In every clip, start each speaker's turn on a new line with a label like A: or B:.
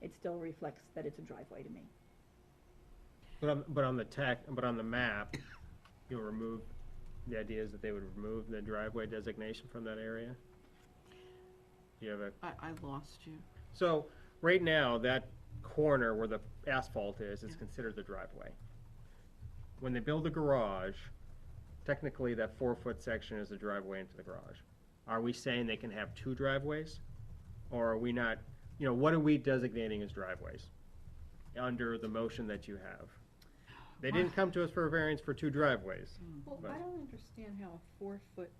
A: it still reflects that it's a driveway to me.
B: But on, but on the tech, but on the map, you'll remove, the idea is that they would remove the driveway designation from that area? Do you have a,
C: I, I lost you.
B: so, right now, that corner where the asphalt is, is
C: Yeah.
B: considered the driveway. When they build the garage, technically, that four-foot section is the driveway into the garage. Are we saying they can have two driveways? Or are we not, you know, what are we designating as driveways? Under the motion that you have? They didn't come to us for a variance for two driveways.
D: Well,
B: But-
D: I don't understand how a four-foot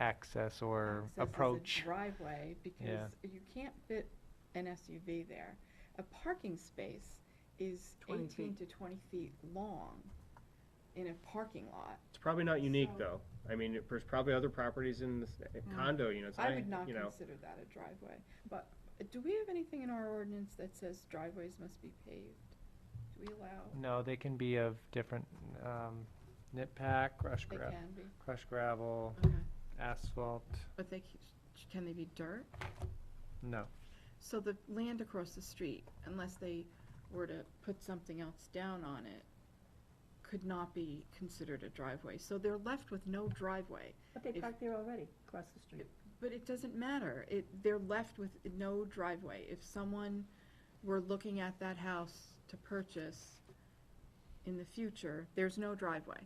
E: access or
D: access is a
E: approach.
D: driveway,
E: Yeah.
D: because you can't fit an SUV there. A parking space is
C: 20
D: eighteen to twenty feet long in a parking lot.
B: It's probably not unique,
D: So- Hmm.
B: though. I mean, it- there's probably other properties in this eh, condo units,
D: I
B: I,
D: would not
B: you know.
D: consider that a driveway, but uh, do we have anything in our ordinance that says driveways must be paved? Do we allow,
E: No, they can be of different, um, nip pack, crush
D: they
E: gra-
D: can be,
E: crushed gravel,
C: Okay.
E: asphalt,
C: But they, c- can they be dirt?
E: no.
D: so the land across the street, unless they were to put something else down on it, could not be considered a driveway, so they're left with no driveway.
A: But they
D: If-
A: park there already, across the street.
D: But it doesn't matter. It, they're left with no driveway. If someone were looking at that house to purchase in the future, there's no driveway.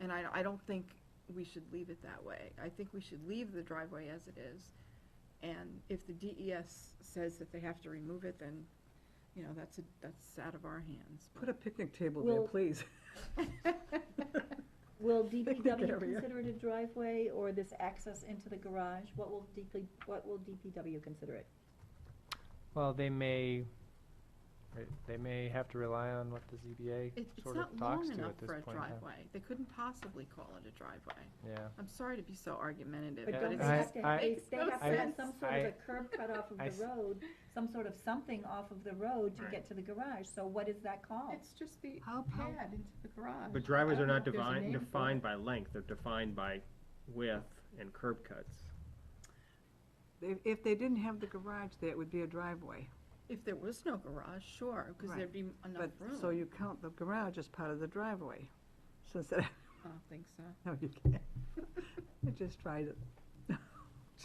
D: And I, I don't think we should leave it that way. I think we should leave the driveway as it is. And if the DES says that they have to remove it, then, you know, that's, a- that's out of our hands.
F: Put a picnic table there,
A: Well-
F: please.
A: Will
F: Picnic
A: DPW
F: area.
A: consider it a driveway or this access into the garage? What will DP, what will DPW consider it?
E: Well, they may, right, they may have to rely on what the ZBA
D: It- It's
E: sort of
D: not
E: talks
D: long
E: to
D: enough
E: at this
D: for a
E: point. in time.
D: driveway. They couldn't possibly call it a driveway.
E: Yeah.
D: I'm sorry to be so argumentative,
A: But
E: Yeah,
D: but
A: don't
D: it's
A: they
E: I-
A: have to,
E: I-
A: they,
D: makes
A: they
D: no
A: have to have
D: sense.
A: some sort of
E: I-
A: a curb cut off of
E: I s-
A: the road, some sort of something off of the road to
B: Right.
A: get to the garage, so what is that called?
D: It's just the
C: How- how-
D: pad into the garage.
B: But driveways
D: I
B: are
D: don't know
B: not
D: if there's a
B: defined,
D: name for
B: defined
D: it.
B: by length, they're defined by width and curb cuts.
F: If, if they didn't have the garage there, it would be a driveway.
D: If there was no garage, sure, because
F: Right.
D: there'd be enough
F: But,
D: room.
F: so you count the garage as part of the driveway, since that,
D: I don't think so.
F: no, you can't. I just tried it.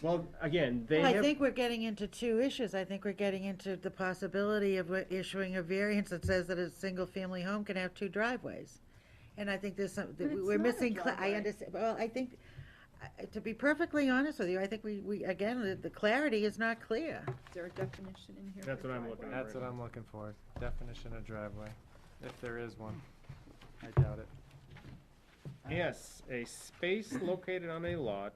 B: Well, again, they
G: Well, I
B: have,
G: think we're getting into two issues. I think we're getting into the possibility of what- issuing a variance that says that a single-family home can have two driveways. And I think there's some, that
D: But
G: we-
D: it's
G: we're
D: not a
G: missing, cla- I
D: driveway.
G: understand, well, I think, I- to be perfectly honest with you, I think we, we, again, the- the clarity is not clear.
D: Is there a definition in here?
B: That's
D: for
B: what I'm
D: driveway?
B: looking at.
E: That's what I'm looking for, definition of driveway, if there is one. I doubt it.
B: yes, a space located on a lot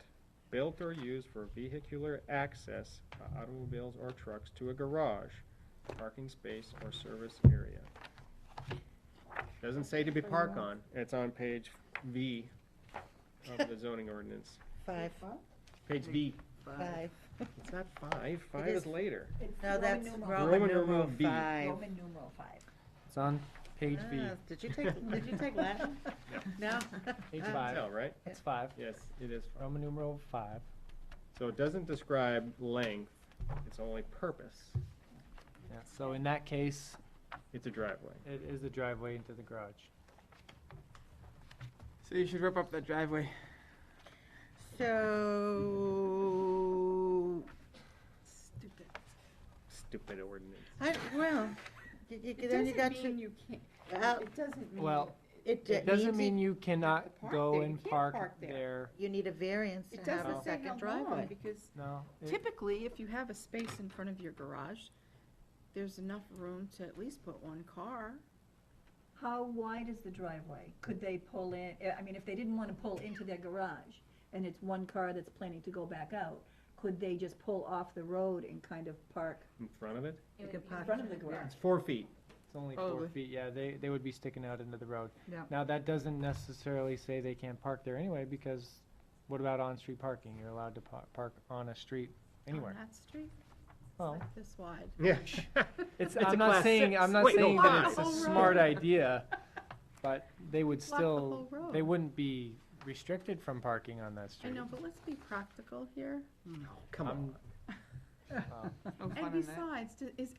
B: built or used for vehicular access by automobiles or trucks to a garage, parking space or service area. Doesn't say to be park on, it's on page V of the zoning ordinance,
G: Five,
B: page V,
G: five.
B: it's not five, five
G: is-
B: is later.
A: It's
G: No,
A: Roman
G: that's
A: numeral-
G: Roman
B: Roman numeral
G: numeral
B: B.
G: five.
A: Roman numeral five.
E: It's on page V,
G: Ah, Did you take, did you take Latin? No?
E: page
G: Ah,
E: five,
B: Tell, right?
E: it's five,
B: Yes, it is five.
E: Roman numeral five.
B: So it doesn't describe length, it's only purpose.
E: Yeah, so in that case,
B: It's a driveway.
E: it is the driveway into the garage.
C: So you should rip up that driveway.
G: So,
D: Stupid.
B: Stupid ordinance.
G: I, well, you- you-
D: It
G: then you got
D: doesn't
G: to.
D: mean you can't,
G: Uh,
D: it doesn't mean.
E: well,
G: It
E: It doesn't mean you cannot
D: park
E: go
D: there. You
E: and
D: can't
E: park
D: park there.
E: there,
G: You need a variance
D: It
G: to have a
D: doesn't
E: No.
D: say
G: second
D: how long,
G: driveway.
D: because
E: no. it-
D: typically, if you have a space in front of your garage, there's enough room to at least put one car.
A: How wide is the driveway? Could they pull in, eh, I mean, if they didn't wanna pull into their garage, and it's one car that's planning to go back out, could they just pull off the road and kind of park
B: In front of it?
G: You can
A: in
G: park
A: front of the garage?
B: It's four feet.
E: It's only four
C: Probably.
E: feet, yeah, they, they would be sticking out into the road.
F: Yeah.
E: Now, that doesn't necessarily say they can't park there anyway, because what about on-street parking? You're allowed to pa- park on a street
D: On
E: anywhere.
D: that street, it's
E: Well,
D: like this wide.
B: Yeah.
E: it's,
B: It's a
E: I'm not
B: class
E: saying,
B: six.
E: I'm not
B: Wait, no,
E: saying that it's
D: block
E: a
D: the whole
E: smart
D: road.
E: idea, but they would
D: Block Oh, the
E: still,
D: whole road.
E: they wouldn't be restricted from parking on that
D: I
E: street.
D: know, but let's be practical here.
B: Come on.
E: I'm- well.
C: No fun
D: And
F: Oh,
C: in that.
D: besides, d- is